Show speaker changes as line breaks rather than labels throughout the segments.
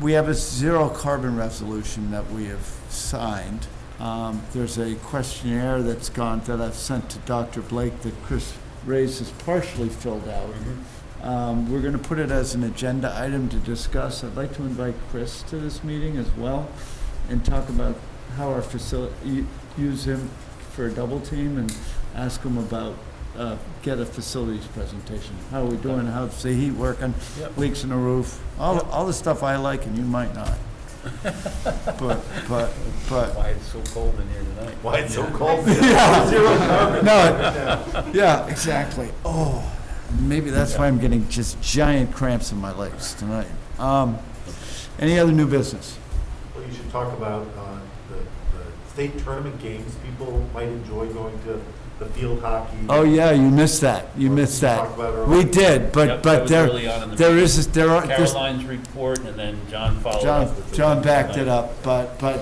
we have a zero carbon resolution that we have signed. Um, There's a questionnaire that's gone, that I've sent to Dr. Blake that Chris Reyes has partially filled out. Um, We're going to put it as an agenda item to discuss. I'd like to invite Chris to this meeting as well and talk about how our facility, use him for a double team and ask him about, uh, get a facilities presentation. How are we doing? How's the heat working?
Yep.
Leaks in the roof? All,
Yep.
all the stuff I like and you might not. But, but, but,
Why it's so cold in here tonight? Why it's so cold?
no, it- yeah, exactly. Oh, maybe that's why I'm getting just giant cramps in my legs tonight. Um, Any other new business?
Well, you should talk about uh, the the state tournament games. People might enjoy going to the field hockey.
Oh, yeah, you missed that. You missed that.
Talked about it
We
earlier.
did, but,
Yep,
but
that was
there,
early on in the
there
meeting.
is, there are, there's
Caroline's report, and then John followed up
John,
with. the-
John backed it up, but, but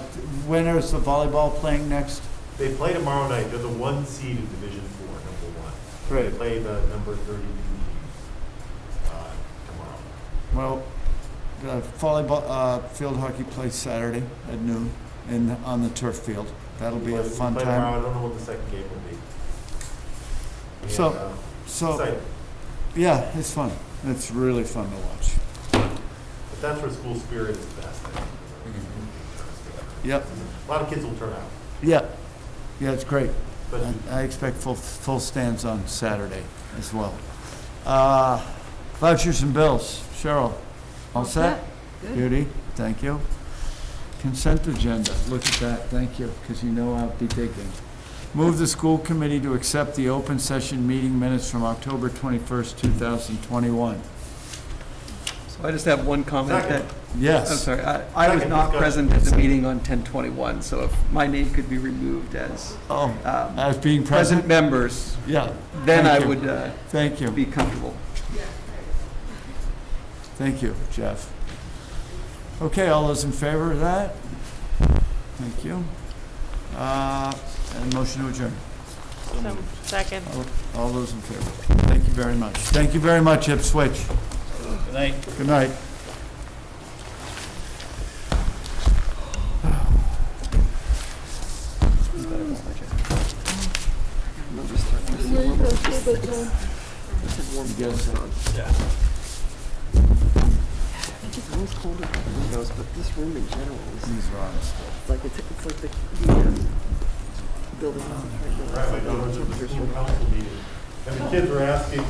when is the volleyball playing next?
They play tomorrow night. They're the one seed in Division Four, number one. They play the number thirty-two team uh, tomorrow.
Well, the volleyball, uh, field hockey plays Saturday at noon in, on the turf field. That'll be a
They
fun
play tomorrow.
time.
I don't know what the second game will be. And,
So-
uh,
So,
exciting.
yeah, it's fun. It's really fun to watch.
But that's where school spirit is best. I think.
Mm. Yep,
A lot of kids will turn out,
yeah. Yeah, it's great.
but
I- I expect full, full stands on Saturday as well. Uh, Vouchers and bills. Cheryl, all set?
Good.
Beauty, thank you. Consent agenda, look at that, thank you, because you know I'll be digging. Move the school committee to accept the open session meeting minutes from October 21st, 2021.
So I just have one comment that,
Second.
I'm
Yes,
sorry, I I was
Second
not
discussion.
present at the meeting on 1021, so if my name could be removed as
oh,
um,
as being present,
present members,
yeah,
then
Thank
I
you.
would uh,
thank you,
be comfortable.
thank you, Jeff. Okay, all those in favor of that? Thank you. Uh, And motion to adjourn.
So, Second.
All- All those in favor, thank you very much. Thank you very much, Ipswich.
Good night.
Good night.
I think it's always colder than windows, but this room in general is
These are honest.
it's like, it's it's like the, the um, building. is right now,
Right,
it's
my
like
daughter
all
was at the
temperatures
school
are-
council meeting, and the kids were asking